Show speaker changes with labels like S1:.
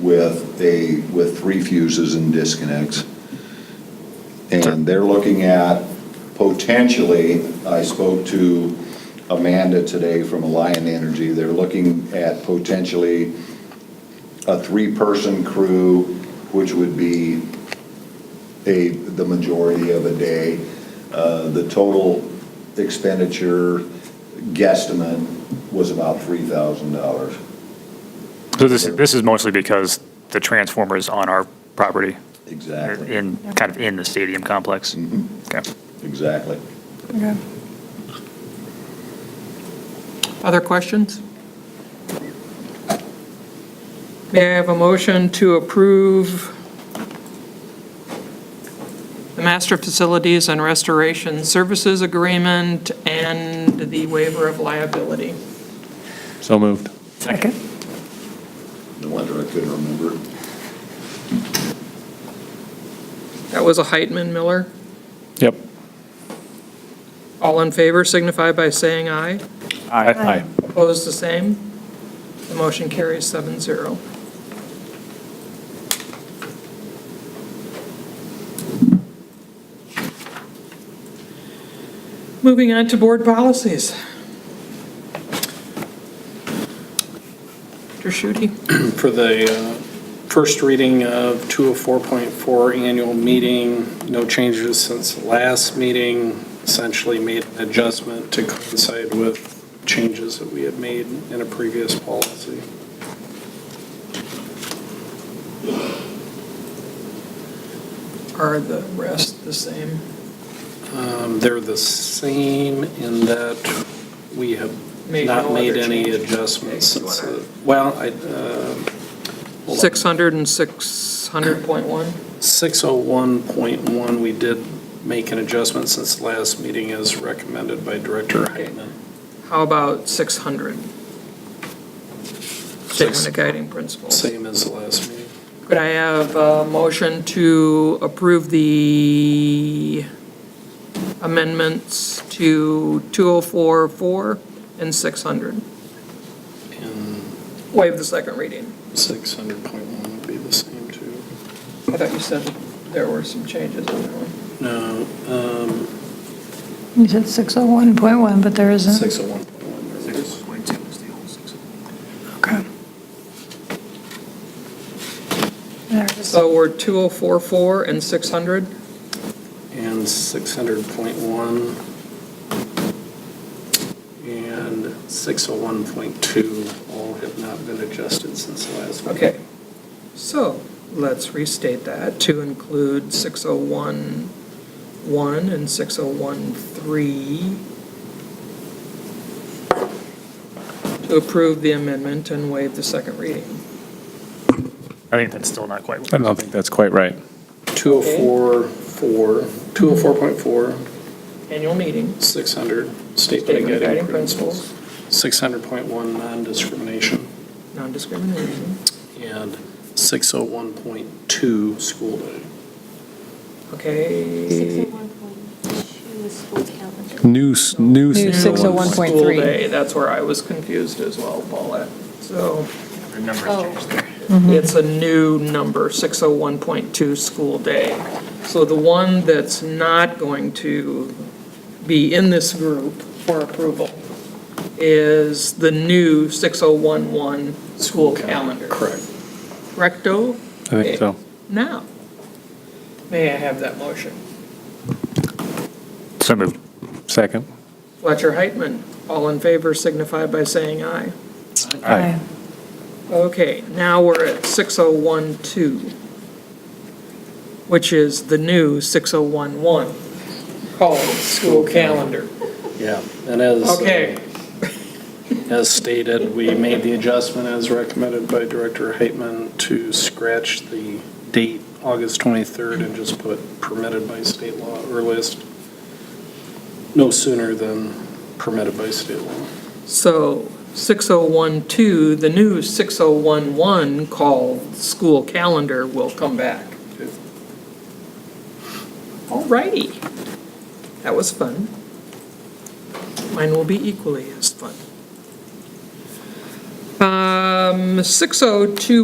S1: with a, with three fuses and disconnects. And they're looking at potentially, I spoke to Amanda today from Alliant Energy, they're looking at potentially a three-person crew, which would be a, the majority of a day. Uh, The total expenditure guesstimate was about $3,000.
S2: So this, this is mostly because the transformer is on our property, or
S1: Exactly, Mm. Mm-hmm.
S2: in, kind of in the stadium complex. Okay.
S1: exactly.
S3: Okay. Other questions? May I have a motion to approve the Master Facilities and Restoration Services Agreement and the waiver of liability?
S4: So moved.
S2: Second.
S1: No wonder I couldn't remember.
S3: That was a Heitman Miller.
S4: Yep.
S3: All in favor signify by saying aye.
S4: Aye.
S3: Opposed, the same. The motion carries seven zero. Moving on to board policies. Mr. Shudy,
S5: for the uh, first reading of 204.4 annual meeting, no changes since the last meeting, essentially made an adjustment to coincide with changes that we had made in a previous policy.
S3: are the rest the same?
S5: Um, They're the same in that we have
S3: Made no
S5: not made
S3: other
S5: any
S3: changes.
S5: adjustments
S3: Okay, you
S5: since,
S3: wanna-
S5: the- well, I, uh, hold on.
S3: 600 and 600.1?
S5: 601.1, we did make an adjustment since the last meeting as recommended by Director Heitman.
S3: How about 600? Statement of guiding principles.
S5: Same as the last meeting.
S3: Could I have a motion to approve the amendments to 2044 and 600?
S5: And
S3: Waive the second reading.
S5: 600.1 would be the same too.
S3: I thought you said there were some changes in there.
S5: No, um,
S6: You said 601.1, but there isn't.
S5: 601.1. there was.
S6: Okay. There it is.
S3: So we're 2044 and 600?
S5: And 600.1. And 601.2 all have not been adjusted since the last meeting.
S3: Okay. So let's restate that to include 601 and 601.3 to approve the amendment and waive the second reading.
S2: I think that's still not quite.
S4: I don't think that's quite right.
S5: 204.4, 204.4,
S3: Annual meeting,
S5: 600, statement
S3: statement
S5: of
S3: of guiding
S5: principles.
S3: principles,
S5: 600.1, non-discrimination.
S3: non-discrimination.
S5: and 601.2 school day.
S3: Okay.
S7: 601.2 is school calendar.
S4: New, s- new.
S6: New 601.
S3: School
S6: 1.3.
S3: day, that's where I was confused as well, Paulette. So
S2: Remember
S7: Oh.
S2: changed there.
S3: It's a new number, 601.2 school day. So the one that's not going to be in this group for approval is the new 6011 school calendar.
S5: Correct.
S3: Correcto?
S4: I think so.
S3: Now, may I have that motion?
S2: So moved.
S4: Second.
S3: Fletcher Heitman, all in favor signify by saying aye.
S6: Aye.
S3: Okay, now we're at 6012, which is the new 6011, called school calendar.
S5: Yeah, and as, uh,
S3: Okay,
S5: as stated, we made the adjustment as recommended by Director Heitman to scratch the date, August 23rd, and just put permitted by state law or list no sooner than permitted by state law.
S3: so 6012, the new 6011 called school calendar will come back. All righty. That was fun. Mine will be equally as fun. Um, 602